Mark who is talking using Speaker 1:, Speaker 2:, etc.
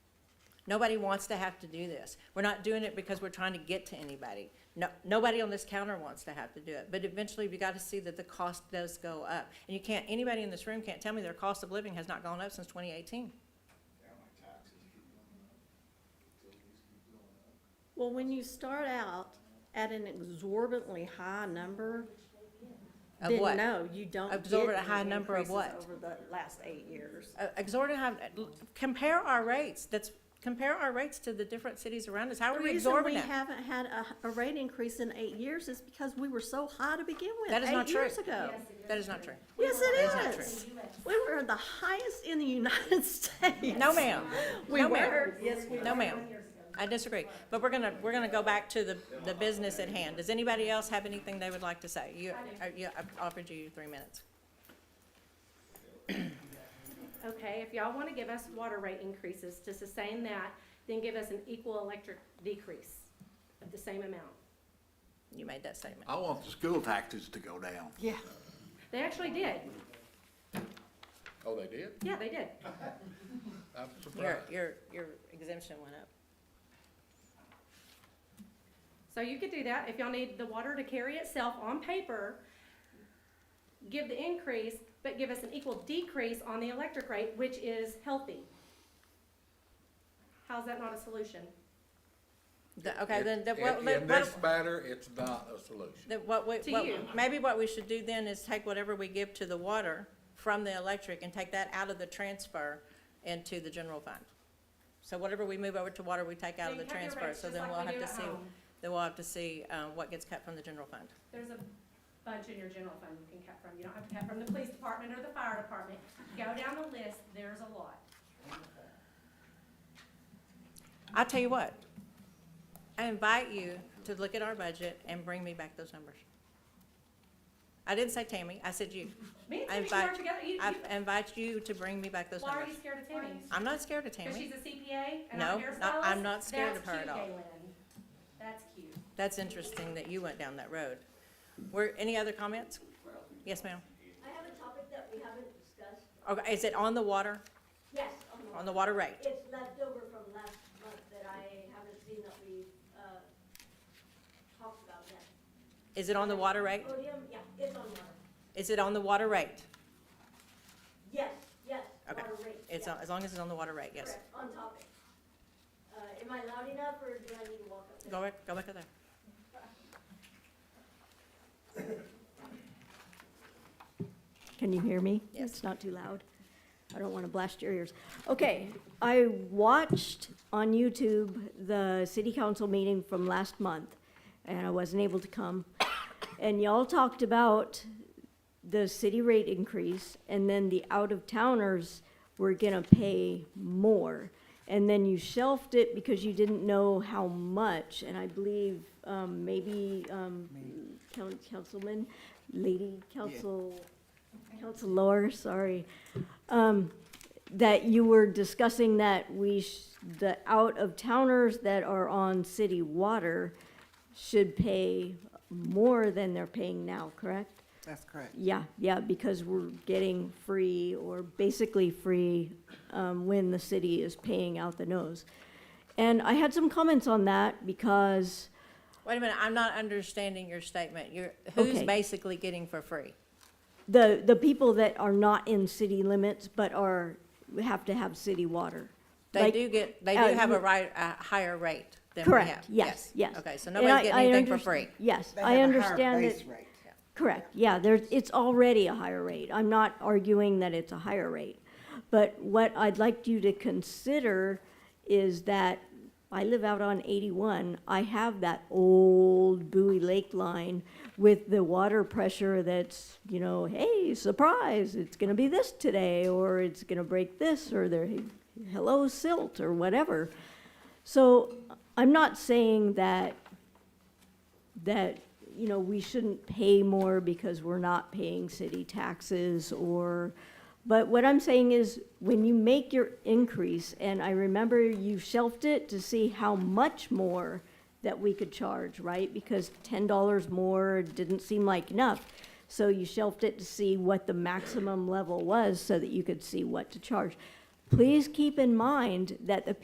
Speaker 1: Nobody wants to have to do this. We're not doing it because we're trying to get to anybody. No, nobody on this counter wants to have to do it, but eventually you gotta see that the cost does go up. And you can't, anybody in this room can't tell me their cost of living has not gone up since twenty eighteen.
Speaker 2: Yeah, my taxes keep going up. Utilities keep going up.
Speaker 3: Well, when you start out at an exorbitantly high number,
Speaker 1: Of
Speaker 3: then
Speaker 1: what?
Speaker 3: no, you don't get
Speaker 1: Absorb a high
Speaker 3: any
Speaker 1: number of
Speaker 3: increases
Speaker 1: what?
Speaker 3: Over the last eight years.
Speaker 1: Uh, exorbitant, high- compare our rates, that's, compare our rates to the different cities around us. How
Speaker 3: The
Speaker 1: are we
Speaker 3: reason we
Speaker 1: absorbing it?
Speaker 3: haven't had a, a rate increase in eight years is because we were so high to begin with,
Speaker 1: That is not
Speaker 3: eight
Speaker 1: true.
Speaker 3: years ago.
Speaker 1: That is not true.
Speaker 3: Yes,
Speaker 1: That is
Speaker 3: it
Speaker 1: not
Speaker 3: is. We were the highest in the United States.
Speaker 1: No, ma'am.
Speaker 3: We
Speaker 1: No, ma'am.
Speaker 3: were, yes, we
Speaker 1: No, ma'am. I disagree. But we're gonna, we're gonna go back to the, the business at hand. Does anybody else have anything they would like to say? You, uh, you, I offered you three minutes.
Speaker 4: Okay, if y'all wanna give us water rate increases to sustain that, then give us an equal electric decrease of the same amount.
Speaker 1: You made that statement.
Speaker 5: I want the school taxes to go down.
Speaker 3: Yeah.
Speaker 4: They actually did,
Speaker 5: Oh, they did?
Speaker 4: yeah, they did.
Speaker 5: I'm
Speaker 1: Your, your, your exemption went up.
Speaker 4: So you could do that, if y'all need the water to carry itself on paper, give the increase, but give us an equal decrease on the electric rate, which is healthy. How's that not a solution?
Speaker 1: The- Okay, then, the-
Speaker 5: In-
Speaker 1: what,
Speaker 5: In
Speaker 1: what,
Speaker 5: this matter, it's not a solution.
Speaker 1: the- what, we-
Speaker 4: To
Speaker 1: what-
Speaker 4: you.
Speaker 1: maybe what we should do then is take whatever we give to the water from the electric and take that out of the transfer into the general fund. So whatever we move over to water, we take out of the
Speaker 4: You cut your
Speaker 1: transfer,
Speaker 4: rates
Speaker 1: so
Speaker 4: just
Speaker 1: then
Speaker 4: like
Speaker 1: we'll
Speaker 4: we
Speaker 1: have
Speaker 4: do
Speaker 1: to
Speaker 4: at
Speaker 1: see,
Speaker 4: home.
Speaker 1: then we'll have to see, uh, what gets cut from the general fund.
Speaker 4: There's a bunch in your general fund you can cut from. You don't have to cut from the police department or the fire department. Go down the list, there's a lot.
Speaker 1: I'll tell you what, I invite you to look at our budget and bring me back those numbers. I didn't say Tammy, I said you.
Speaker 4: Me and
Speaker 1: I
Speaker 4: Timmy should work
Speaker 1: invite-
Speaker 4: together. You,
Speaker 1: I
Speaker 4: you-
Speaker 1: invite you to bring me back those
Speaker 4: why are
Speaker 1: numbers.
Speaker 4: you scared of Timmy?
Speaker 1: I'm not scared of
Speaker 4: Because she's
Speaker 1: Tammy.
Speaker 4: a CPA and I'm a
Speaker 1: No, not-
Speaker 4: hairstylist?
Speaker 1: I'm not scared of her at
Speaker 4: That's
Speaker 1: all.
Speaker 4: cute, Galen. That's cute.
Speaker 1: That's interesting that you went down that road. Were, any other comments? Yes, ma'am.
Speaker 6: I have a topic that we haven't discussed.
Speaker 1: Okay, is it on the water,
Speaker 6: Yes, on the-
Speaker 1: on the water rate?
Speaker 6: it's left over from last month that I haven't seen that we, uh, talked about yet.
Speaker 1: Is it on the water rate?
Speaker 6: Podium, yeah, it's on water.
Speaker 1: Is it on the water rate?
Speaker 6: Yes, yes,
Speaker 1: Okay.
Speaker 6: water rate.
Speaker 1: It's,
Speaker 6: yeah,
Speaker 1: on- as long as it's on the water rate, yes.
Speaker 6: Correct, on topic. Uh, am I loud enough or do I need to walk up there?
Speaker 1: Go back, go back up there.
Speaker 6: Can you hear me?
Speaker 1: Yes.
Speaker 6: It's not too loud. I don't want to blast your ears. Okay, I watched on YouTube the city council meeting from last month, and I wasn't able to come. And y'all talked about the city rate increase, and then the out-of-towners were gonna pay more. And then you shelved it because you didn't know how much, and I believe, um, maybe, um, coun- councilman, lady council, council lower, sorry, um, that you were discussing that we, sh- the out-of-towners that are on city water should pay more than they're paying now, correct?
Speaker 7: That's correct.
Speaker 6: Yeah, yeah, because we're getting free or basically free um, when the city is paying out the nose. And I had some comments on that because,
Speaker 1: Wait a minute, I'm not understanding your statement. You're, who's
Speaker 6: Okay.
Speaker 1: basically getting for free?
Speaker 6: the, the people that are not in city limits but are, have to have city water.
Speaker 1: They
Speaker 6: Like,
Speaker 1: do get, they do
Speaker 6: uh,
Speaker 1: have a
Speaker 6: you-
Speaker 1: right, a higher rate than we have.
Speaker 6: Correct, yes, yes.
Speaker 1: Okay, so
Speaker 6: And
Speaker 1: nobody's
Speaker 6: I-
Speaker 1: getting
Speaker 6: I
Speaker 1: anything for
Speaker 6: underst-
Speaker 1: free.
Speaker 6: Yes,
Speaker 7: They
Speaker 6: I
Speaker 7: have a higher
Speaker 6: understand
Speaker 7: base
Speaker 6: that,
Speaker 7: rate.
Speaker 6: correct, yeah, there's, it's already a higher rate. I'm not arguing that it's a higher rate. But what I'd like you to consider is that I live out on 81. I have that old Bowie Lake line with the water pressure that's, you know, hey, surprise, it's going to be this today, or it's going to break this, or there, hello, silt, or whatever. So I'm not saying that, that, you know, we shouldn't pay more because we're not paying city taxes or, but what I'm saying is, when you make your increase, and I remember you shelved it to see how much more that we could charge, right? Because ten dollars more didn't seem like enough. So you shelved it to see what the maximum level was so that you could see what to charge. Please keep in mind that the